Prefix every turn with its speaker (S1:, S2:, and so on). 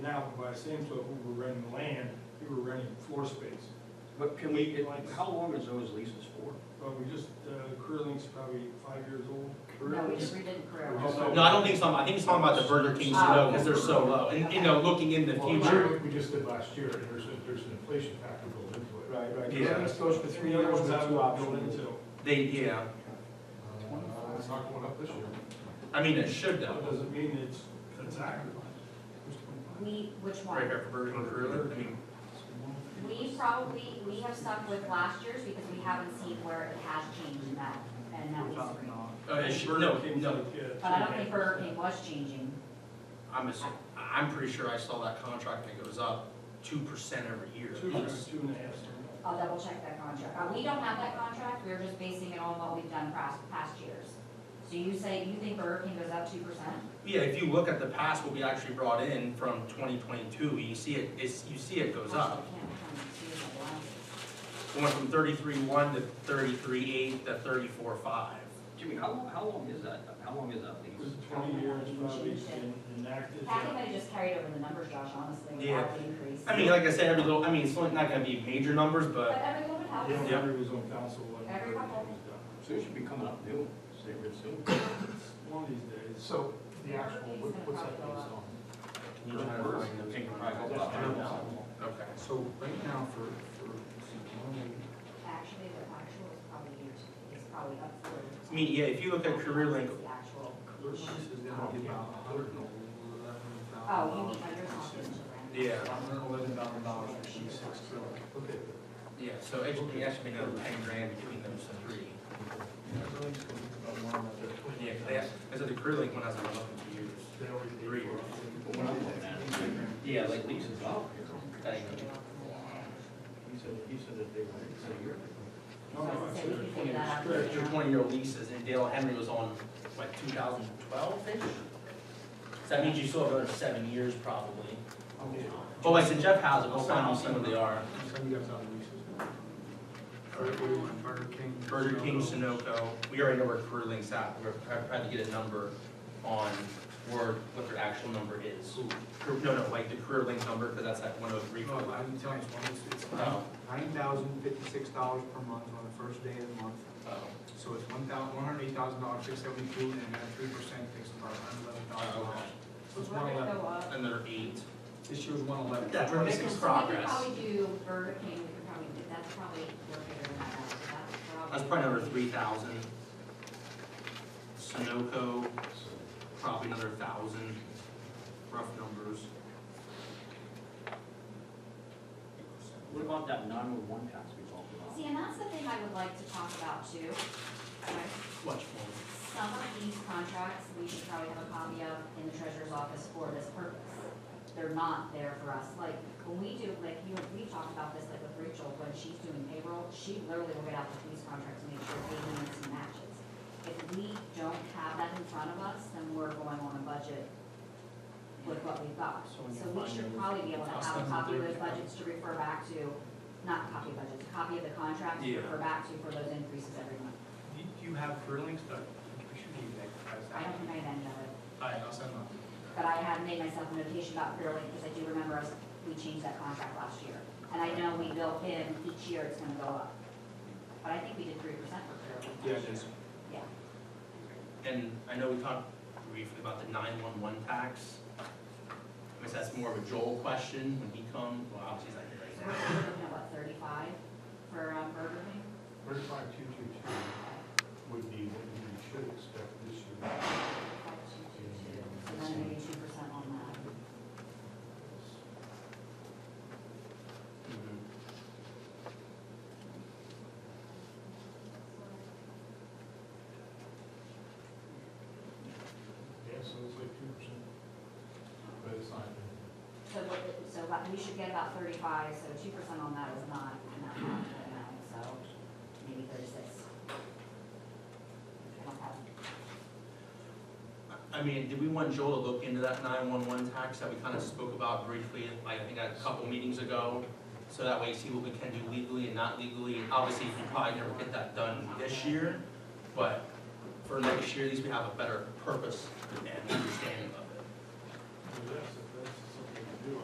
S1: Now, by the same token, we were renting land, we were renting floor space.
S2: But can we, it- how long is those leases for?
S1: But we just, uh, Curling's probably five years old.
S3: No, we just redid Carrera.
S1: Just-
S4: No, I don't think so, I think it's talking about the Burger King snow, because they're so low, and, you know, looking in the
S5: Well, we
S4: future.
S5: did- we just did last year, and there's, a- there's an inflation factor built into it.
S2: Right, right.
S4: Yeah.
S2: This goes for three
S1: The other
S2: years
S1: ones
S2: with
S1: I've
S2: two
S1: built
S2: options.
S1: into.
S4: They, yeah,
S5: Uh, It's not going up this year.
S4: I mean, it should
S1: That
S4: though.
S1: doesn't mean it's, it's accurate.
S3: We, which
S4: Right
S3: one?
S4: here for Burger King Cruiser, I mean,
S3: We probably, we have stuck with last year's because we haven't seen where it has changed in that, and that was.
S4: uh, it should, no,
S1: uh,
S4: no,
S3: But I don't think Burger King was changing.
S4: I'm, ass- I'm pretty sure I saw that contract and it goes up two percent every year.
S1: Two, two and a half.
S3: I'll double check that contract. Uh, we don't have that contract, we're just basing it on what we've done past, past years. So you say, you think Burger King goes up two percent?
S4: Yeah, if you look at the past, what we actually brought in from twenty twenty-two, you see it, it's, you see it goes up. Going from thirty-three one to thirty-three eight to thirty-four five.
S2: Jimmy, how, long- how long is that, how long is that
S1: It
S2: lease?
S1: was twenty years, probably, and enacted.
S3: Kathy might have just carried over the numbers, Josh, honestly,
S4: Yeah.
S3: without the increase.
S4: I mean, like I said, every little, I mean, it's not gonna be major numbers,
S3: But
S4: but
S3: everyone would have.
S1: Yeah,
S3: it.
S1: everybody was on council when Burger
S3: Every
S1: King
S3: couple.
S1: was done.
S2: So it should be coming up new, say real soon.
S1: One of these days.
S5: So the actual, what- what's that lease on?
S2: Where's the pink private lot?
S4: Okay.
S6: So right now for, for, so
S3: Actually, the actual is probably, is probably up for.
S4: I mean, yeah, if you look at Career Link,
S3: The actual.
S6: this is gonna be about a hundred and eleven
S3: Oh,
S6: thousand
S3: you
S6: dollars.
S3: mean under confidential grant?
S4: Yeah.
S6: Hundred and eleven thousand dollars for sheet six trillion.
S5: Okay.
S4: yeah, so it should be actually another ten grand between those three. Yeah, 'cause they, have- I said the Career Link one hasn't been up in two years.
S5: They already paid
S4: Three.
S5: for it.
S2: Yeah, like leases up. That ain't gonna-
S5: He said, he said that they were, it's a year.
S1: No, no, I said it was
S3: So I
S1: 20
S3: said we could take
S1: years.
S3: that out.
S4: Correct, your twenty-year leases, and Dale Henry was on, like, two thousand twelve-ish? So that means you still have another seven years probably. But like the Jeff has it, we'll find out some of the are.
S6: Some of you guys have leases. Burger King.
S4: Burger King, Sunoco, we already know where Career Link's at, we're try- trying to get a number on where, what their actual number is. Cur- No, no, like the Career Link number, because that's at one oh three.
S6: No, I didn't tell you, it's
S4: Oh.
S6: nine thousand fifty-six dollars per month on the first day of the month.
S4: oh.
S6: So it's one thousand, one hundred eight thousand dollars, six seventy-two, and then three percent takes about eleven
S4: Oh,
S6: dollars.
S4: okay.
S6: So it's
S3: So
S6: one
S3: we're gonna
S6: eleven,
S3: go up.
S4: Another eight.
S6: this year's one eleven.
S4: That's right. Making
S3: So
S4: progress.
S3: We could probably do Burger King, we could probably, do- that's probably, we're bigger than that, that's probably.
S4: That's probably another three thousand. Sunoco, probably another thousand, rough numbers.
S2: What about that nine-one-one tax we talked about?
S3: See, and that's the thing I would like to talk about too. Okay.
S4: Much more.
S3: Some of these contracts, we should probably have a copy of in the treasurer's office for this purpose. They're not there for us, like, when we do, like, you, we talked about this, like, with Rachel, when she's doing payroll, she literally will get out the police contracts and make sure they need some matches. If we don't have that in front of us, then we're going on a budget with what we've got.
S6: So when you
S3: So we
S6: find
S3: should
S6: those-
S3: probably be able to
S4: I'll
S3: have a
S4: send them
S3: copy of
S4: through.
S3: those budgets to refer back to, not copy of budgets, copy of the contracts to
S4: Yeah.
S3: refer back to for those increases every month.
S6: Do do you have Career Links, though? We should give you that.
S3: I don't think I had any of it.
S6: All right, I'll send them.
S3: But I had made myself a notation about Fairlink, because I do remember us, we changed that contract last year. And I know we built in, each year it's gonna go up. But I think we did three percent for Fairlink.
S6: Yeah,
S3: last
S6: it is.
S3: year. Yeah,
S4: And I know we talked briefly about the nine-one-one tax. I guess that's more of a Joel question when he comes, well, obviously he's
S3: so we're
S4: not here right
S3: we're looking at what, thirty-five for um, Burger King?
S5: Thirty-five, two, two, two would be what you should expect this year.
S3: Five, two, two, two. So then maybe two percent on that.
S4: now.
S5: Yeah, so it's like two percent. But it's not.
S3: So what, so what- we should get about thirty-five, so two percent on that is not, not much right now, so maybe thirty-six. I don't have
S4: I mean, did we want Joel to look into that nine-one-one tax that we kind of spoke about briefly, I think a couple meetings ago? So that way see what we can do legally and not legally, and obviously we probably never get that done this year, but for next year, at least we have a better purpose and understanding of it.
S5: But that's